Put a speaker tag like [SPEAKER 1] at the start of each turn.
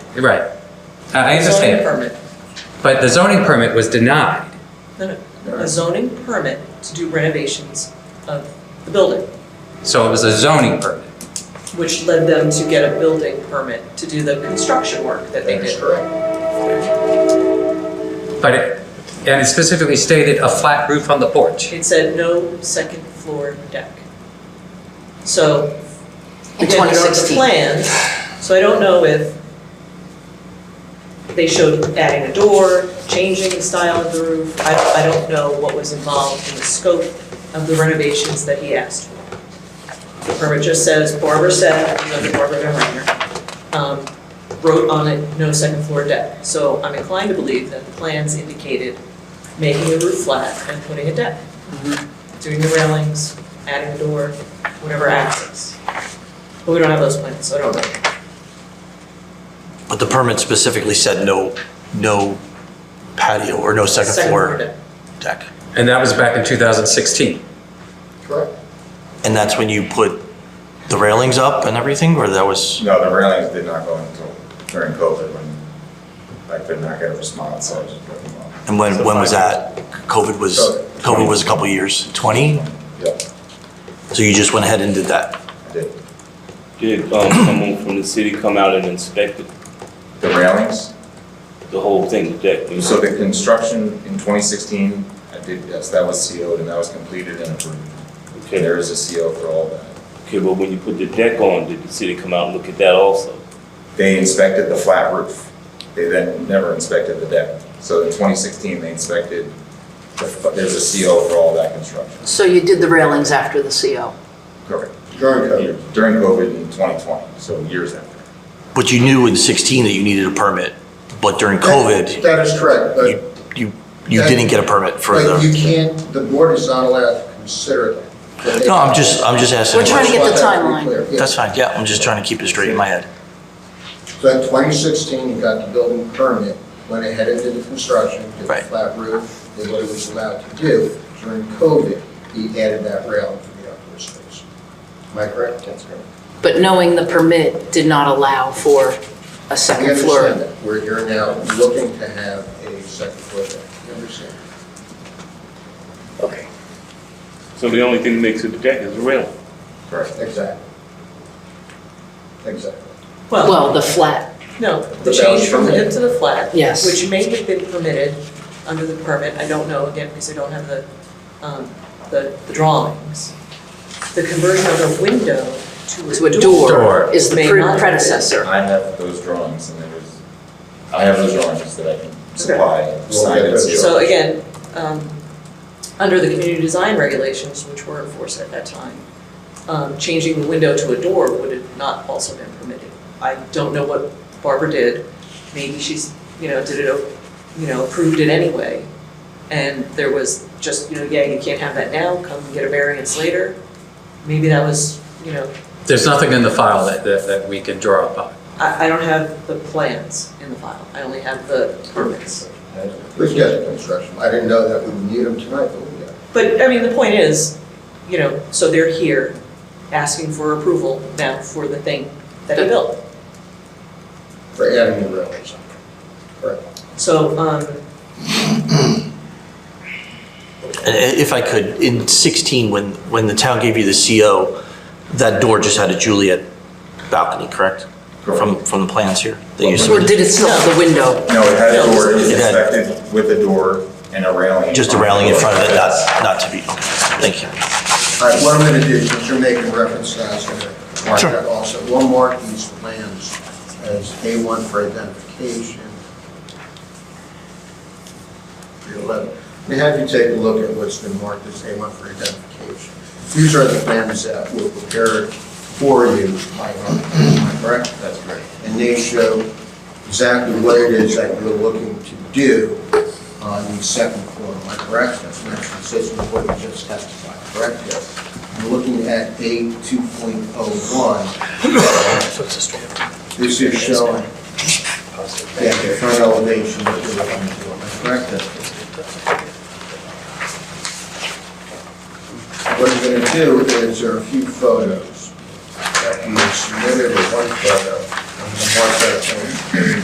[SPEAKER 1] Right. I I
[SPEAKER 2] Zoning
[SPEAKER 1] understand,
[SPEAKER 2] permit.
[SPEAKER 1] but the zoning permit was denied.
[SPEAKER 2] No, no, a zoning permit to do renovations of the building,
[SPEAKER 1] So it was a zoning permit.
[SPEAKER 2] which led them to get a building permit to do the construction work that they
[SPEAKER 3] That is
[SPEAKER 2] did.
[SPEAKER 3] correct.
[SPEAKER 1] But it, and it specifically stated a flat roof on the porch.
[SPEAKER 2] It said no second floor deck. So,
[SPEAKER 4] In
[SPEAKER 2] again, there are the
[SPEAKER 4] 2016.
[SPEAKER 2] plans, so I don't know if they showed adding a door, changing the style of the roof. I don't, I don't know what was involved in the scope of the renovations that he asked for. The permit just says, Barbara said, you know, Barbara Van Reiner, um, wrote on it, no second floor deck. So I'm inclined to believe that the plans indicated making the roof flat and putting a deck. Doing the railings, adding a door, whatever access. But we don't have those plans, so I don't know.
[SPEAKER 5] But the permit specifically said no, no patio or no second floor
[SPEAKER 2] deck.
[SPEAKER 5] deck.
[SPEAKER 1] And that was back in 2016.
[SPEAKER 3] Correct.
[SPEAKER 5] And that's when you put the railings up and everything, or that was,
[SPEAKER 3] No, the railings did not go until during COVID when I could not get a response, so I just put them on.
[SPEAKER 5] and when,
[SPEAKER 3] So
[SPEAKER 5] when was
[SPEAKER 3] five-
[SPEAKER 5] that? COVID was,
[SPEAKER 3] Covid.
[SPEAKER 5] COVID was a couple years, 20?
[SPEAKER 3] Yep,
[SPEAKER 5] So you just went ahead and did that?
[SPEAKER 3] I did.
[SPEAKER 6] Did um, someone from the city come out and inspect it,
[SPEAKER 3] The railings,
[SPEAKER 6] the whole thing, the deck?
[SPEAKER 3] so the construction in 2016, I did, yes, that was CO'd and that was completed and approved.
[SPEAKER 6] Okay,
[SPEAKER 3] There is a CO for all that.
[SPEAKER 6] okay, but when you put the deck on, did the city come out and look at that also?
[SPEAKER 3] They inspected the flat roof. They then never inspected the deck. So in 2016, they inspected, the- there's a CO for all that construction.
[SPEAKER 4] So you did the railings after the CO?
[SPEAKER 3] Correct. During COVID. During COVID in 2020, so years after.
[SPEAKER 5] But you knew in 16 that you needed a permit, but during COVID,
[SPEAKER 7] That is correct,
[SPEAKER 5] you,
[SPEAKER 7] but,
[SPEAKER 5] you, you didn't get a permit for
[SPEAKER 7] but you
[SPEAKER 5] the,
[SPEAKER 7] can't, the board is not allowed to consider that.
[SPEAKER 5] no, I'm just, I'm just asking. a
[SPEAKER 4] We're trying to
[SPEAKER 5] question.
[SPEAKER 4] get the
[SPEAKER 7] Just want that to be
[SPEAKER 4] timeline.
[SPEAKER 7] clear. Yeah.
[SPEAKER 5] That's fine, yeah, I'm just trying to keep it straight in my head.
[SPEAKER 7] So in 2016, you got the building permit, went ahead and did the construction, did the
[SPEAKER 5] Right.
[SPEAKER 7] flat roof, did what it was allowed to do. During COVID, he added that railing for the outdoor space. Am I correct? That's correct.
[SPEAKER 4] But knowing the permit did not allow for a
[SPEAKER 7] We
[SPEAKER 4] second
[SPEAKER 7] understand
[SPEAKER 4] floor.
[SPEAKER 7] that. We're, you're now looking to have a second floor deck. You understand?
[SPEAKER 4] Okay.
[SPEAKER 6] So the only thing that makes it the deck is the railing.
[SPEAKER 3] Correct.
[SPEAKER 7] Exactly. Exactly.
[SPEAKER 4] Well, the flat,
[SPEAKER 2] No, the
[SPEAKER 3] The
[SPEAKER 2] change
[SPEAKER 3] balance
[SPEAKER 2] from the
[SPEAKER 3] permit.
[SPEAKER 2] hip to the flat.
[SPEAKER 4] Yes.
[SPEAKER 2] Which may have been permitted under the permit, I don't know, again, because I don't have the, um, the the drawings. The conversion of a window
[SPEAKER 4] to a door,
[SPEAKER 1] Door.
[SPEAKER 4] is the
[SPEAKER 2] May not
[SPEAKER 4] pre-
[SPEAKER 2] have
[SPEAKER 4] predecessor.
[SPEAKER 3] I have those drawings and there was, I have those drawings that I can supply,
[SPEAKER 7] Okay.
[SPEAKER 3] signed and sealed.
[SPEAKER 2] So again, um, under the community design regulations, which were enforced at that time, um, changing the window to a door would have not also been permitted. I don't know what Barbara did, maybe she's, you know, did it, you know, approved it anyway. And there was just, you know, yeah, you can't have that now, come get a variance later. Maybe that was, you know,
[SPEAKER 1] There's nothing in the file that, that, that we can draw upon.
[SPEAKER 2] I, I don't have the plans in the file, I only have the permits.
[SPEAKER 7] We've got the construction. I didn't know that we would need them tonight, but we got it.
[SPEAKER 2] But, I mean, the point is, you know, so they're here asking for approval now for the thing that he built.
[SPEAKER 7] for adding the railings. Correct.
[SPEAKER 2] So, um,
[SPEAKER 5] And i- Uh, if I could, in 16, when, when the town gave you the CO, that door just had a Juliet balcony, correct? From, from the plans here? that you
[SPEAKER 4] Or
[SPEAKER 5] submitted?
[SPEAKER 4] did it still have the window?
[SPEAKER 3] No, it had a door, it was
[SPEAKER 5] It had-
[SPEAKER 3] inspected with a door and a railing. in
[SPEAKER 5] Just a
[SPEAKER 3] front
[SPEAKER 5] railing in front of it,
[SPEAKER 3] door.
[SPEAKER 5] not, not to be, okay, thank you.
[SPEAKER 7] All right, what I'm going to do, since you're making reference to that, I'm going to mark that also. We'll mark these plans as A1 for identification. Three eleven. We have you take a look at what's been marked as A1 for identification. These are the plans that were prepared for you by our, am I correct?
[SPEAKER 3] That's correct.
[SPEAKER 7] And they show exactly what it is that you're looking to do on uh, the second floor, am I correct? That's not consistent with what you just testified, correct? Yes. I'm looking at A 2.01. This is showing, yeah, the front elevation that you're looking for, am I correct? What I'm going to do is there are a few photos that you submitted, or one photo, and one photo